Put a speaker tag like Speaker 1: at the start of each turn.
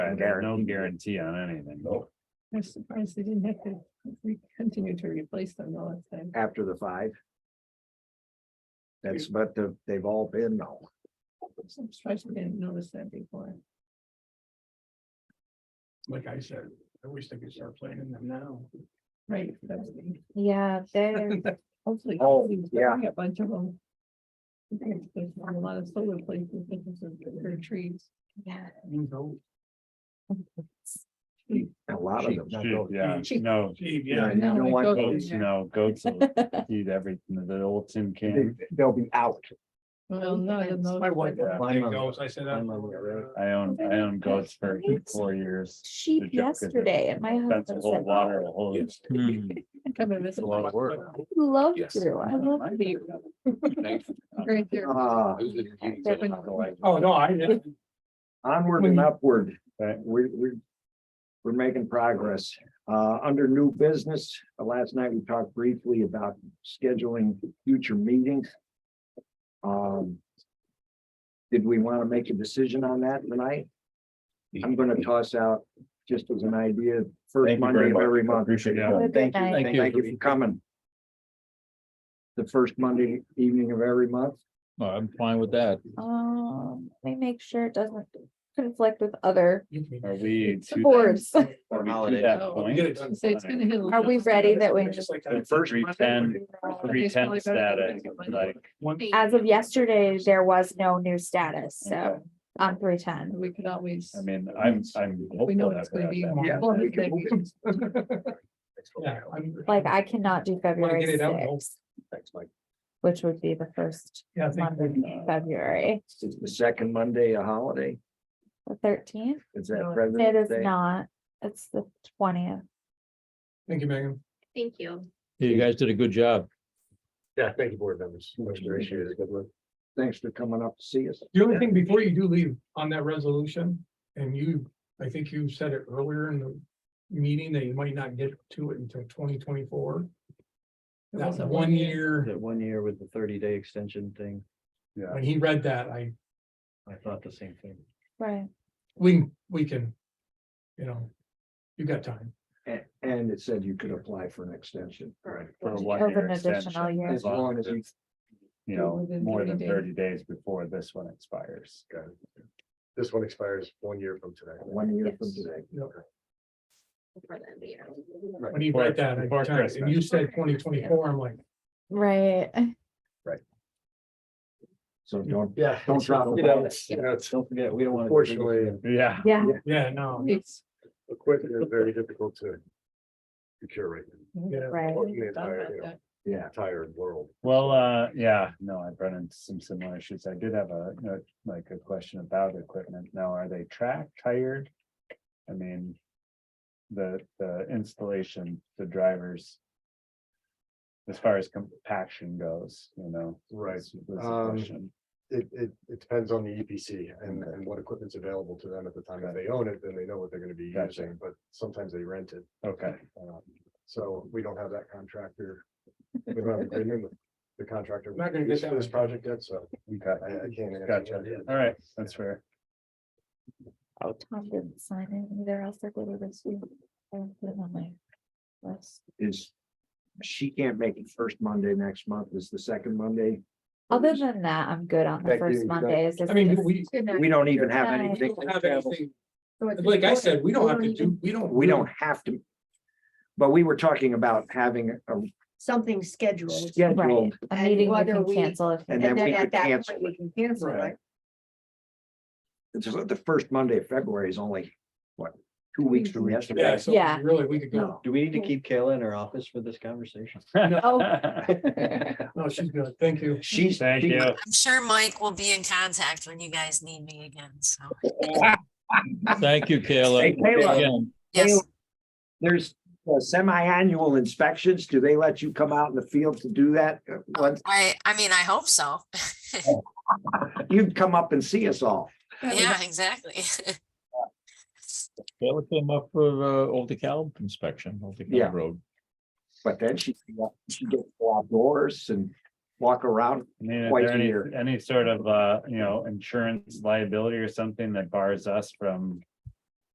Speaker 1: no
Speaker 2: guarantee.
Speaker 1: no guarantee on anything.
Speaker 2: No,
Speaker 3: I'm surprised they didn't have to re- continue to replace them all the time.
Speaker 2: after the five. That's but the- they've all been now.
Speaker 3: I'm surprised we didn't notice that before.
Speaker 4: Like I said, I wish they could start planning them now.
Speaker 3: Right. that's the-
Speaker 5: Yeah, they're,
Speaker 3: Hopefully.
Speaker 2: Oh,
Speaker 3: we can
Speaker 2: yeah.
Speaker 3: bring A bunch of them. I think There's a lot of solar places, that can serve their trees.
Speaker 5: yeah,
Speaker 4: You know,
Speaker 2: A lot of them.
Speaker 1: Shoot, Yeah,
Speaker 3: Cheap.
Speaker 1: no,
Speaker 4: gee,
Speaker 2: Yeah,
Speaker 4: yeah,
Speaker 2: you
Speaker 3: No,
Speaker 2: don't
Speaker 3: it
Speaker 2: want
Speaker 3: goes
Speaker 2: those-
Speaker 1: goats, no, goats will eat everything, the old tin can.
Speaker 2: they- They'll be out.
Speaker 3: Well, none of those.
Speaker 2: My wife-
Speaker 3: that-
Speaker 4: there it goes, I said.
Speaker 2: I'm on the road.
Speaker 4: uh,
Speaker 1: I own, I own goats for four years.
Speaker 5: sheep
Speaker 1: joke is that
Speaker 5: yesterday at my
Speaker 1: That's a
Speaker 5: husband's.
Speaker 1: whole lot of
Speaker 3: "Oh,
Speaker 6: Yes.
Speaker 3: Come and visit.
Speaker 1: a lot of work.
Speaker 5: Love
Speaker 6: Yes.
Speaker 5: to, I love to be.
Speaker 6: Thanks.
Speaker 3: Right there.
Speaker 2: Ah,
Speaker 6: Who's the- you
Speaker 5: They're
Speaker 6: said
Speaker 5: been-
Speaker 6: Chicago, I-
Speaker 4: Oh, no, I didn't.
Speaker 2: Onward and upward.
Speaker 1: Right.
Speaker 2: We, we, we're making progress. Uh, under new business, uh, last night we talked briefly about scheduling future meetings. Um. Did we want to make a decision on that tonight? I'm gonna toss out, just as an idea, first Monday of every month.
Speaker 1: Appreciate it.
Speaker 5: Have a good night.
Speaker 2: Thank you. Thank you for coming. The first Monday evening of every month.
Speaker 7: I'm fine with that.
Speaker 5: Um, let me make sure it doesn't conflict with other
Speaker 4: You can-
Speaker 1: Are we to that-
Speaker 5: boards.
Speaker 1: are we to that
Speaker 3: Oh,
Speaker 1: point?
Speaker 4: get it done.
Speaker 3: So it's gonna hit. a
Speaker 5: Are we ready that we,
Speaker 4: It's just like
Speaker 1: The
Speaker 4: that.
Speaker 1: first three ten, three
Speaker 3: It's probably
Speaker 1: ten
Speaker 3: better
Speaker 1: status,
Speaker 3: than
Speaker 1: like,
Speaker 4: One-
Speaker 5: as of yesterday, there was no new status, so
Speaker 1: Okay.
Speaker 5: on three ten.
Speaker 3: We could always.
Speaker 1: I mean, I'm, I'm.
Speaker 3: We know
Speaker 1: hopeful
Speaker 3: it's
Speaker 1: that we're
Speaker 3: gonna
Speaker 1: at that.
Speaker 3: be.
Speaker 4: Yeah,
Speaker 3: more
Speaker 2: we can-
Speaker 3: than
Speaker 2: we
Speaker 3: we
Speaker 2: can-
Speaker 4: Yeah, I'm-
Speaker 5: Like I cannot do February
Speaker 4: get it out, no.
Speaker 5: sixth, which would be the first
Speaker 4: Yeah, I think
Speaker 5: Monday in February,
Speaker 2: Is the second Monday a holiday?
Speaker 5: the thirteenth.
Speaker 2: Is that
Speaker 3: No, it
Speaker 5: It
Speaker 2: President's
Speaker 5: is
Speaker 2: Day?
Speaker 5: not, it's the twentieth.
Speaker 4: Thank you, Megan.
Speaker 5: Thank you.
Speaker 7: You guys did a good job.
Speaker 6: Yeah, thank you, board members.
Speaker 2: Thanks for coming up to see us.
Speaker 4: The only thing before you do leave on that resolution, and you, I think you said it earlier in the meeting that you might not get to it until twenty twenty-four. That one year,
Speaker 8: That one year with the thirty day extension thing,
Speaker 4: when he read that, I,
Speaker 8: I thought the same thing.
Speaker 5: Right.
Speaker 4: we, we can, you know, you got time.
Speaker 2: A- And it said you could apply for an extension. Right.
Speaker 1: For a
Speaker 5: Over
Speaker 1: one-year
Speaker 5: an additional
Speaker 1: extension,
Speaker 5: year.
Speaker 2: As long as you,
Speaker 1: you know,
Speaker 3: Within
Speaker 1: more
Speaker 3: 30
Speaker 1: than
Speaker 3: days.
Speaker 1: thirty days before this one expires.
Speaker 6: This one expires one year from today.
Speaker 2: one year from today.
Speaker 4: When he read that, I
Speaker 1: Before
Speaker 4: got time. and you said twenty twenty-four, I'm like,
Speaker 5: Right.
Speaker 2: So don't,
Speaker 6: Yeah.
Speaker 2: Don't drop the
Speaker 6: You know,
Speaker 2: ball.
Speaker 6: it's- you know, it's-
Speaker 8: Don't forget, we don't want.
Speaker 6: Unfortunately,
Speaker 1: Yeah.
Speaker 5: Yeah.
Speaker 4: yeah, no,
Speaker 3: It's.
Speaker 6: equipment is very difficult to secure right now,
Speaker 4: yeah.
Speaker 5: Right.
Speaker 6: Or the
Speaker 3: Thought about
Speaker 6: entire, you know,
Speaker 9: uh,
Speaker 3: that.
Speaker 2: yeah.
Speaker 6: entire world.
Speaker 1: Well, uh, yeah, no, I've run into some similar issues. I did have a, you know, like a question about equipment. Now, are they tracked, hired? I mean. The, the installation, the drivers. As far as compaction goes, you know.
Speaker 6: Right.
Speaker 1: was- was the
Speaker 6: Um,
Speaker 1: question.
Speaker 6: It, it, it depends on the EPC and, and what equipment's available to them at the time. If they own it, then they know what they're gonna be
Speaker 1: Gotcha.
Speaker 6: using, but sometimes they rent it.
Speaker 1: Okay,
Speaker 6: Um, So we don't have that contractor. We don't have an agreement with the contractor.
Speaker 4: Not gonna get that.
Speaker 6: for This project yet, so I,
Speaker 1: okay,
Speaker 6: I can't. answer
Speaker 1: gotcha.
Speaker 6: that.
Speaker 1: All right, that's fair.
Speaker 5: Oh, Tom didn't sign it either. I'll stick with it this week. I'll put it on my list.
Speaker 2: Is, she can't make it first Monday next month. Is the second Monday?
Speaker 5: Other than that, I'm good on the
Speaker 6: Thank
Speaker 5: first
Speaker 6: you.
Speaker 5: Mondays. It's
Speaker 4: I mean,
Speaker 5: just-
Speaker 4: we,
Speaker 2: We don't even have
Speaker 5: Right.
Speaker 2: anything.
Speaker 4: don't have anything, like I said, we don't have to do, we don't.
Speaker 2: We don't have to. But we were talking about having a
Speaker 9: something scheduled.
Speaker 5: Right,
Speaker 2: scheduled
Speaker 5: a
Speaker 9: and
Speaker 5: meeting we
Speaker 9: whether
Speaker 5: can
Speaker 9: we-
Speaker 5: cancel if.
Speaker 2: and then
Speaker 9: And
Speaker 2: we
Speaker 9: then
Speaker 2: could
Speaker 9: at that
Speaker 2: cancel.
Speaker 9: point, we can cancel
Speaker 4: Right.
Speaker 9: it.
Speaker 2: It's about the first Monday of February is only, what, two weeks from
Speaker 4: Yeah,
Speaker 2: yesterday?
Speaker 4: so
Speaker 5: Yeah.
Speaker 4: really, we could go,
Speaker 2: No,
Speaker 8: Do we need to keep Kayla in her office for this conversation?
Speaker 4: no, she's good, thank you.
Speaker 2: she's.
Speaker 1: Thank
Speaker 2: she-
Speaker 1: you.
Speaker 10: I'm sure Mike will be in contact when you guys need me again, so.
Speaker 7: Thank you,
Speaker 2: Hey,
Speaker 7: Kayla.
Speaker 2: Kayla.
Speaker 7: Again,
Speaker 10: Yes,
Speaker 2: There's uh, semi-annual inspections. Do they let you come out in the field to do that? Uh, Once
Speaker 10: I, I mean, I hope so.
Speaker 2: you'd come up and see us all.
Speaker 10: Yeah, exactly.
Speaker 7: Kayla came up for uh, Old DeKalb inspection, Old
Speaker 2: Yeah.
Speaker 7: DeKalb Road.
Speaker 2: But then she, she gets to go outdoors and walk around.
Speaker 1: I mean, is
Speaker 2: Quite
Speaker 1: there any,
Speaker 2: clear.
Speaker 1: any sort of, uh, you know, insurance liability or something that bars us from